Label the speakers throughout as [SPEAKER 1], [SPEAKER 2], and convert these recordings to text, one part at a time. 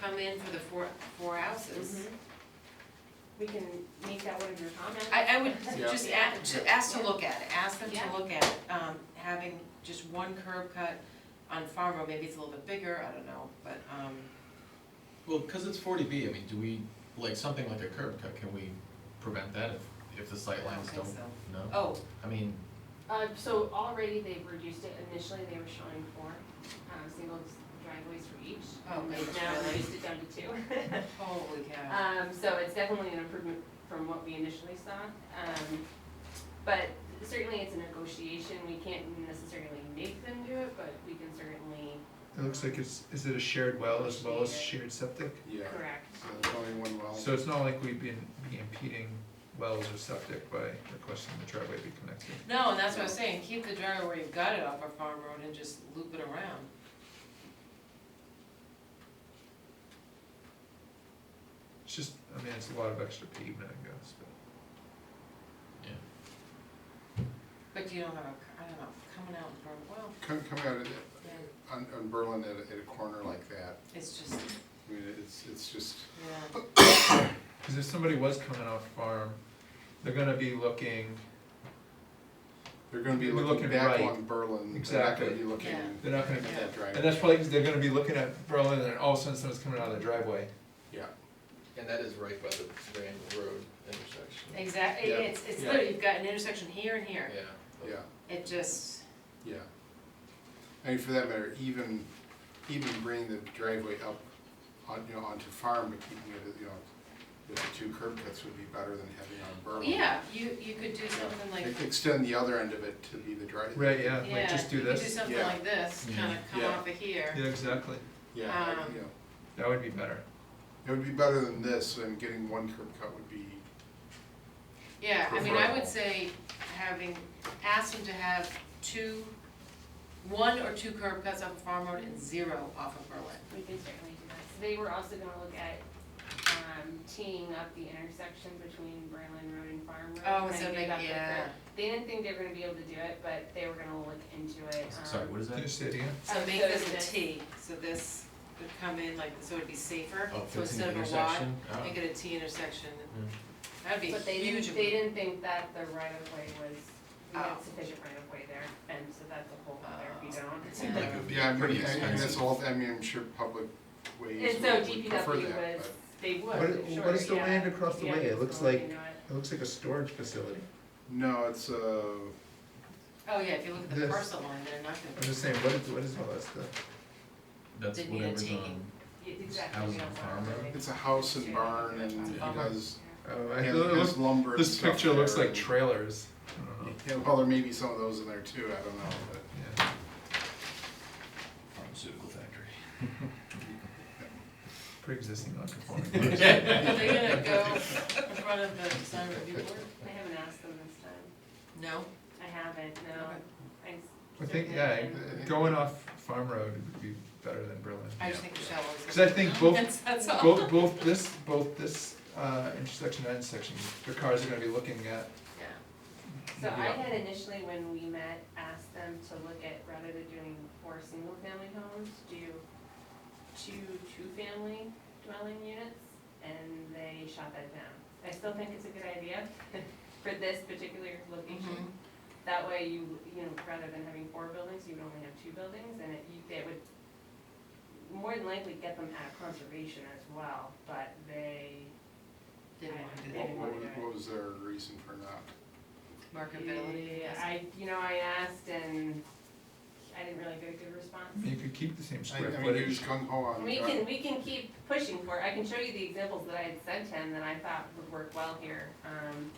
[SPEAKER 1] come in for the four, four houses.
[SPEAKER 2] Mm-hmm. We can make that one of your comments.
[SPEAKER 1] I, I would
[SPEAKER 3] Yeah.
[SPEAKER 1] just add, to ask to look at it, ask them
[SPEAKER 2] Yeah.
[SPEAKER 1] to look at, um, having just one curb cut on Farm Road, maybe it's a little bit bigger, I don't know, but, um,
[SPEAKER 3] Well, because it's forty B, I mean, do we, like, something like a curb cut, can we prevent that if, if the
[SPEAKER 1] I
[SPEAKER 3] sight
[SPEAKER 1] don't
[SPEAKER 3] lines
[SPEAKER 1] think
[SPEAKER 3] don't,
[SPEAKER 1] so.
[SPEAKER 3] no?
[SPEAKER 1] Oh,
[SPEAKER 3] I mean,
[SPEAKER 2] Uh, so already they've reduced it, initially they were showing four, um, single driveways for each.
[SPEAKER 1] Oh,
[SPEAKER 2] and
[SPEAKER 1] goodness,
[SPEAKER 2] They've now
[SPEAKER 1] really?
[SPEAKER 2] reduced it down to two.
[SPEAKER 1] holy cow.
[SPEAKER 2] Um, so it's definitely an improvement from what we initially saw. Um, but certainly it's a negotiation, we can't necessarily make them do it, but we can certainly
[SPEAKER 4] It looks like it's, is it a shared well as well as shared septic?
[SPEAKER 5] Yeah,
[SPEAKER 2] correct.
[SPEAKER 5] so there's only one well.
[SPEAKER 4] So it's not like we'd be be impeding wells or septic by requesting the driveway be connected.
[SPEAKER 1] No, and that's what I was saying, keep the driveway where you've got it off of Farm Road and just loop it around.
[SPEAKER 4] It's just, I mean, it's a lot of extra pavement, I guess, but
[SPEAKER 1] But you don't have a, I don't know, coming out from, well,
[SPEAKER 5] Come, come out of,
[SPEAKER 1] yeah,
[SPEAKER 5] on, on Berlin at a, at a corner like that,
[SPEAKER 1] it's just,
[SPEAKER 5] I mean, it's, it's just,
[SPEAKER 1] yeah,
[SPEAKER 4] because if somebody was coming off farm, they're gonna be looking,
[SPEAKER 5] they're gonna be
[SPEAKER 4] You're
[SPEAKER 5] looking
[SPEAKER 4] looking
[SPEAKER 5] back
[SPEAKER 4] right.
[SPEAKER 5] on Berlin, they're not gonna
[SPEAKER 4] Exactly.
[SPEAKER 5] be looking
[SPEAKER 1] Yeah.
[SPEAKER 5] at
[SPEAKER 4] they're not gonna,
[SPEAKER 1] Yeah.
[SPEAKER 5] that driveway.
[SPEAKER 4] and that's probably 'cause they're gonna be looking at Berlin and all of a sudden someone's coming out of the driveway.
[SPEAKER 5] Yeah,
[SPEAKER 6] And that is right by the Randall Road intersection.
[SPEAKER 1] exactly,
[SPEAKER 5] Yeah.
[SPEAKER 1] it's, it's
[SPEAKER 6] Yeah.
[SPEAKER 1] literally, you've got an intersection here and here,
[SPEAKER 6] Yeah.
[SPEAKER 5] yeah,
[SPEAKER 1] it just,
[SPEAKER 5] yeah. I mean, for that matter, even, even bringing the driveway up on, you know, onto farm, but keeping it, you know, with the two curb cuts would be better than having on Berlin.
[SPEAKER 1] yeah, you, you could do something like,
[SPEAKER 5] Ex- Extend the other end of it to be the drive,
[SPEAKER 4] Right, yeah, like
[SPEAKER 1] yeah,
[SPEAKER 4] just do
[SPEAKER 1] you could do
[SPEAKER 4] this.
[SPEAKER 1] something
[SPEAKER 5] Yeah.
[SPEAKER 1] like this,
[SPEAKER 3] Yeah.
[SPEAKER 1] kinda come
[SPEAKER 5] Yeah.
[SPEAKER 1] off of here.
[SPEAKER 4] Yeah, exactly.
[SPEAKER 5] yeah,
[SPEAKER 1] Um,
[SPEAKER 5] you know.
[SPEAKER 4] That would be better.
[SPEAKER 5] It would be better than this, and getting one curb cut would be,
[SPEAKER 1] Yeah, I mean, I would
[SPEAKER 5] Preferable.
[SPEAKER 1] say having, ask them to have two, one or two curb cuts off of Farm Road and zero off of Berlin.
[SPEAKER 2] We can certainly do that. So they were also gonna look at, um, teeing up the intersection between Berlin Road and Farm Road.
[SPEAKER 1] Oh,
[SPEAKER 2] trying
[SPEAKER 1] so
[SPEAKER 2] to get
[SPEAKER 1] make-
[SPEAKER 2] up the
[SPEAKER 1] yeah.
[SPEAKER 2] curve. They didn't think they were gonna be able to do it, but they were gonna look into it.
[SPEAKER 3] sorry,
[SPEAKER 2] um,
[SPEAKER 3] what is
[SPEAKER 4] Can you
[SPEAKER 3] that?
[SPEAKER 4] say it again?
[SPEAKER 1] So
[SPEAKER 2] Oh,
[SPEAKER 1] make
[SPEAKER 2] so
[SPEAKER 1] this
[SPEAKER 2] this-
[SPEAKER 1] a T, so this would come in like, so it'd be safer,
[SPEAKER 3] Oh,
[SPEAKER 1] so
[SPEAKER 3] fixing the
[SPEAKER 1] instead of a Y,
[SPEAKER 3] intersection? Oh.
[SPEAKER 1] make it a T intersection. That'd be
[SPEAKER 2] But they didn't,
[SPEAKER 1] huge.
[SPEAKER 2] they didn't think that the right of way was, we had
[SPEAKER 1] Oh.
[SPEAKER 2] sufficient right of way there, and so that's a whole other, if you
[SPEAKER 1] Oh.
[SPEAKER 2] don't.
[SPEAKER 1] Yeah.
[SPEAKER 3] Like, it would be
[SPEAKER 5] yeah, I mean,
[SPEAKER 3] pretty
[SPEAKER 5] I- I mean, that's
[SPEAKER 3] expensive.
[SPEAKER 5] all, I mean, I'm sure public ways
[SPEAKER 2] And so
[SPEAKER 5] would would prefer
[SPEAKER 2] DPW
[SPEAKER 5] that,
[SPEAKER 2] was,
[SPEAKER 5] but,
[SPEAKER 2] they
[SPEAKER 4] What
[SPEAKER 2] would,
[SPEAKER 4] i-
[SPEAKER 2] sure,
[SPEAKER 4] what is the
[SPEAKER 2] yeah.
[SPEAKER 4] land across the
[SPEAKER 2] Yeah,
[SPEAKER 4] way? It
[SPEAKER 2] it's
[SPEAKER 4] looks
[SPEAKER 2] gonna look
[SPEAKER 4] like-
[SPEAKER 2] into it.
[SPEAKER 4] It looks like a storage facility.
[SPEAKER 5] no, it's, uh,
[SPEAKER 1] Oh, yeah, if you look at the
[SPEAKER 4] This.
[SPEAKER 1] parcel line, they're not
[SPEAKER 4] I'm
[SPEAKER 1] gonna,
[SPEAKER 4] just saying, what is, what is all that stuff?
[SPEAKER 3] That's
[SPEAKER 1] Didn't need a
[SPEAKER 3] whatever's
[SPEAKER 1] T.
[SPEAKER 3] on,
[SPEAKER 2] Yeah, Exactly.
[SPEAKER 3] Houses
[SPEAKER 2] we don't
[SPEAKER 3] and
[SPEAKER 2] want
[SPEAKER 3] farm
[SPEAKER 2] it.
[SPEAKER 3] road?
[SPEAKER 5] it's a house and barn, and he
[SPEAKER 1] Yeah.
[SPEAKER 5] does,
[SPEAKER 4] Oh,
[SPEAKER 5] he
[SPEAKER 4] I- it
[SPEAKER 5] has
[SPEAKER 4] looks-
[SPEAKER 5] lumber and
[SPEAKER 4] This
[SPEAKER 5] stuff
[SPEAKER 4] picture looks
[SPEAKER 5] there,
[SPEAKER 4] like
[SPEAKER 5] and-
[SPEAKER 4] trailers. I don't know.
[SPEAKER 5] Yeah, well, there may be some of those in there too, I don't know, but,
[SPEAKER 4] Yeah.
[SPEAKER 6] Pharmaceutical factory.
[SPEAKER 4] Pre-existing non-conforming. use.
[SPEAKER 1] they're gonna go in front of the design review board?
[SPEAKER 2] I haven't asked them this time.
[SPEAKER 1] No?
[SPEAKER 2] I haven't, no.
[SPEAKER 1] Okay.
[SPEAKER 2] I s-
[SPEAKER 4] I think, yeah, going off Farm Road would be better than Berlin.
[SPEAKER 1] I just think Michelle was.
[SPEAKER 4] 'Cause I think both-
[SPEAKER 1] That's- That's all.
[SPEAKER 4] Both, both this, both this uh, intersection and intersection, the cars are gonna be looking at.
[SPEAKER 1] Yeah.
[SPEAKER 2] So I
[SPEAKER 4] Yeah.
[SPEAKER 2] had initially, when we met, asked them to look at, rather than doing four single-family homes, do two two-family dwelling units, and they shot that down. I still think it's a good idea for this particular
[SPEAKER 1] Mhm.
[SPEAKER 2] location. That way you, you know, rather than having four buildings, you would only have two buildings, and it, you, that would more than likely get them out of conservation as well, but they,
[SPEAKER 1] Didn't want to do
[SPEAKER 5] what,
[SPEAKER 1] that.
[SPEAKER 5] what was, what was their reason for not?
[SPEAKER 1] Marketability.
[SPEAKER 2] Yeah,
[SPEAKER 1] yes.
[SPEAKER 2] I, you know, I asked and I didn't really get a good
[SPEAKER 4] I mean,
[SPEAKER 2] response.
[SPEAKER 4] you could keep the same
[SPEAKER 5] I,
[SPEAKER 4] square
[SPEAKER 5] I mean, he was
[SPEAKER 4] footage.
[SPEAKER 5] gung ho on.
[SPEAKER 2] We
[SPEAKER 5] dri-
[SPEAKER 2] can, we can keep pushing for it, I can show you the examples that I had sent him that I thought would work well here, um.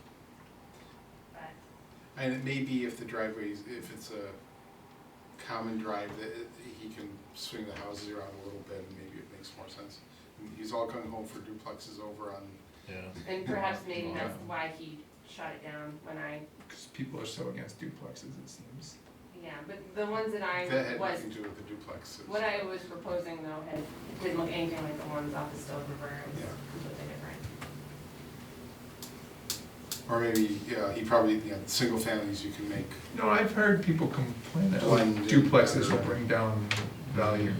[SPEAKER 2] But,
[SPEAKER 5] And it may be if the driveways, if it's a common drive, that it- he can swing the houses around a little bit, and maybe it makes more sense. He's all gung ho for duplexes over on
[SPEAKER 6] Yeah.
[SPEAKER 2] and perhaps maybe that's
[SPEAKER 3] Yeah.
[SPEAKER 2] why he shot it down when I,
[SPEAKER 4] Because people are so against duplexes, it seems.
[SPEAKER 2] yeah, but the ones that
[SPEAKER 5] That
[SPEAKER 2] I
[SPEAKER 5] had
[SPEAKER 2] was,
[SPEAKER 5] nothing to do with the duplexes.
[SPEAKER 2] what I was proposing though, had, didn't look anything like the ones off the Stover River, it was
[SPEAKER 5] Yeah.
[SPEAKER 2] completely different.
[SPEAKER 5] Or maybe, yeah, he probably, yeah, single families you can make.
[SPEAKER 4] No, I've heard people complain that like
[SPEAKER 5] Blend in
[SPEAKER 4] duplexes will
[SPEAKER 5] better.
[SPEAKER 4] bring down value.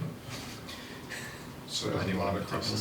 [SPEAKER 5] So
[SPEAKER 3] Anyone
[SPEAKER 5] lot
[SPEAKER 3] with
[SPEAKER 5] across the